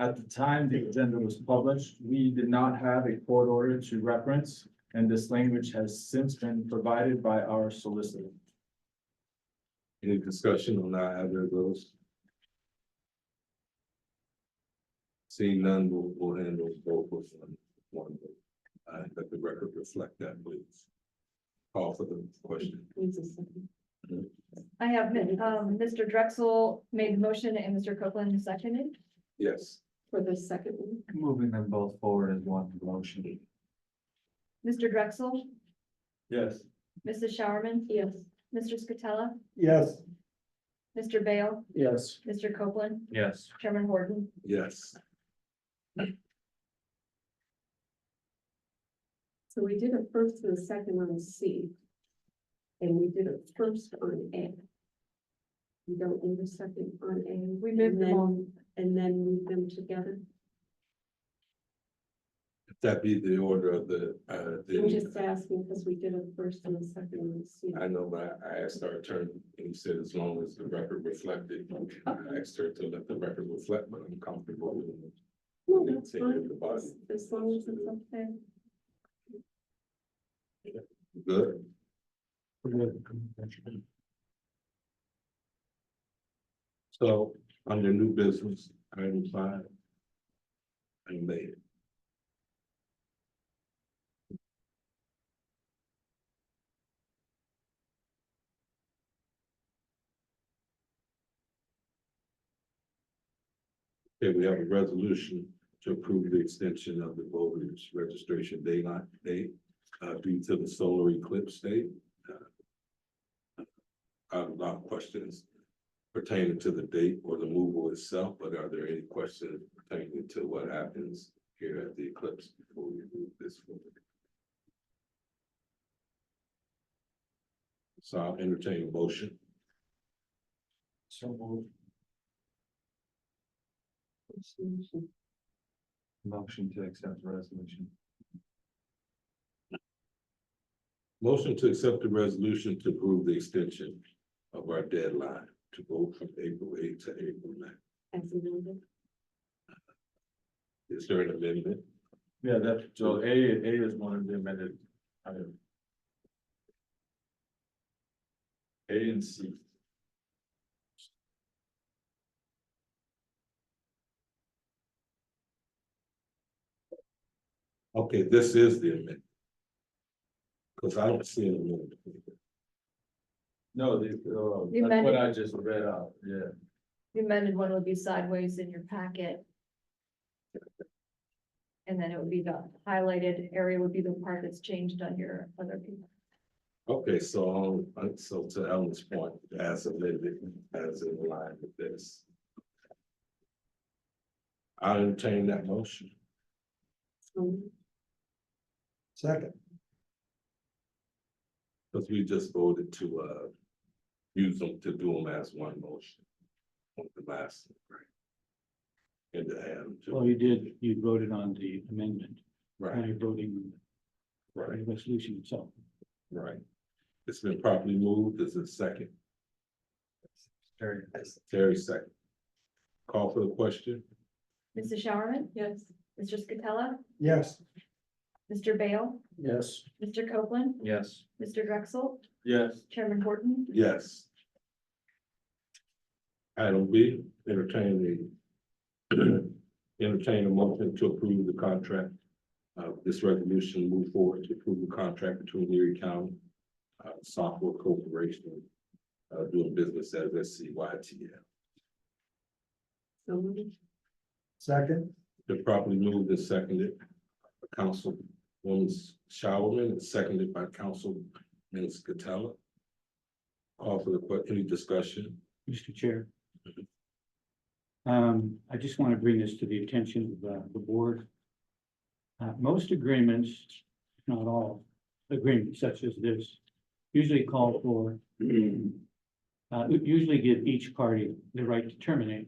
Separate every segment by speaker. Speaker 1: At the time the agenda was published, we did not have a court order to reference, and this language has since been provided by our solicitor.
Speaker 2: Any discussion on that, either of those? Seeing none, we'll, we'll handle both of them. One, I let the record reflect that, please. Call for the question.
Speaker 3: I have, um, Mr. Drexel made the motion and Mr. Copeland seconded.
Speaker 2: Yes,
Speaker 4: For the second one?
Speaker 5: Moving them both forward as one motion.
Speaker 3: Mr. Drexel,
Speaker 1: Yes.
Speaker 3: Mrs. Showerman,
Speaker 4: Yes.
Speaker 3: Mr. Scatella,
Speaker 1: Yes.
Speaker 3: Mr. Bale,
Speaker 1: Yes.
Speaker 3: Mr. Copeland,
Speaker 5: Yes.
Speaker 3: Chairman Horton.
Speaker 2: yes.
Speaker 4: So we did a first and a second on C. And we did a first on A. We don't need a second on A.
Speaker 3: We moved
Speaker 4: and
Speaker 3: them
Speaker 4: then-
Speaker 3: all.
Speaker 4: And then move them together.
Speaker 2: If that be the order of the, uh,
Speaker 4: I'm just
Speaker 2: the,
Speaker 4: asking because we did a first and a second on C.
Speaker 2: I know, but I asked our attorney, and he said as long as the record reflected. I asked her to let the record reflect, but I'm comfortable with it.
Speaker 4: No,
Speaker 2: didn't
Speaker 4: that's
Speaker 2: say
Speaker 4: fine,
Speaker 2: everybody.
Speaker 4: as- as long as it's up there.
Speaker 2: Good, so under new business, item five. I made it. Okay, we have a resolution to approve the extension of the voters registration daylight date uh, due to the solar eclipse date. uh, I have a lot of questions pertaining to the date or the move itself, but are there any questions pertaining to what happens here at the eclipse before we move this forward? So I'll entertain a motion.
Speaker 5: So move. Motion to accept the resolution.
Speaker 2: Motion to accept the resolution to approve the extension of our deadline to go from April eighth to April 9th.
Speaker 4: As amended.
Speaker 2: Is there an amendment?
Speaker 1: Yeah, that, so A, A is one of the amended. item. A and C.
Speaker 2: Okay, this is the amendment. Cause I don't see an amendment.
Speaker 1: No, the, uh,
Speaker 3: The
Speaker 1: that's what
Speaker 3: amended.
Speaker 1: I just read out, yeah.
Speaker 3: The amended one would be sideways in your packet. And then it would be the highlighted area would be the part that's changed on your other people.
Speaker 2: Okay, so, um, so to Ellen's point, as amended, as in line with this. I entertain that motion.
Speaker 4: So
Speaker 5: Second.
Speaker 2: Cause we just voted to, uh, use them to do them as one motion. On the last. right? And to add them
Speaker 6: Well,
Speaker 2: to,
Speaker 6: Oh, you did, you voted on the amendment, now
Speaker 2: right,
Speaker 6: you're voting on
Speaker 2: right,
Speaker 6: the resolution itself.
Speaker 2: right. It's been properly moved, is it second?
Speaker 5: Very
Speaker 2: Terry second. Call for the question?
Speaker 3: Mrs. Showerman,
Speaker 4: Yes.
Speaker 3: Mr. Scatella,
Speaker 1: Yes.
Speaker 3: Mr. Bale,
Speaker 1: Yes.
Speaker 3: Mr. Copeland,
Speaker 5: Yes.
Speaker 3: Mr. Drexel,
Speaker 1: Yes.
Speaker 3: Chairman Horton.
Speaker 2: Yes. Item B, entertain the entertain a motion to approve the contract. Uh, this resolution move forward to approve the contract between Erie County uh, Software Corporation uh, doing business as SCYTL.
Speaker 4: So moved.
Speaker 1: Second?
Speaker 2: Been properly moved and seconded. by Councilwoman Showerman and seconded by Councilman Scatella. Call for the, que- any discussion?
Speaker 6: Mr. Chair. Um, I just want to bring this to the attention of uh, the board. Uh, most agreements, if not all, agreements such as this, usually call for uh, usually give each party the right to terminate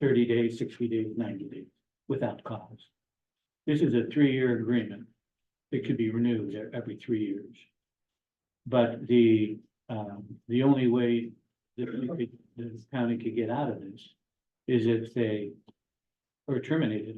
Speaker 6: thirty days, sixty days, ninety days without cause. This is a three-year agreement. It could be renewed e- every three years. But the, um, the only way that we could- that the county could get out of this is if they or terminated,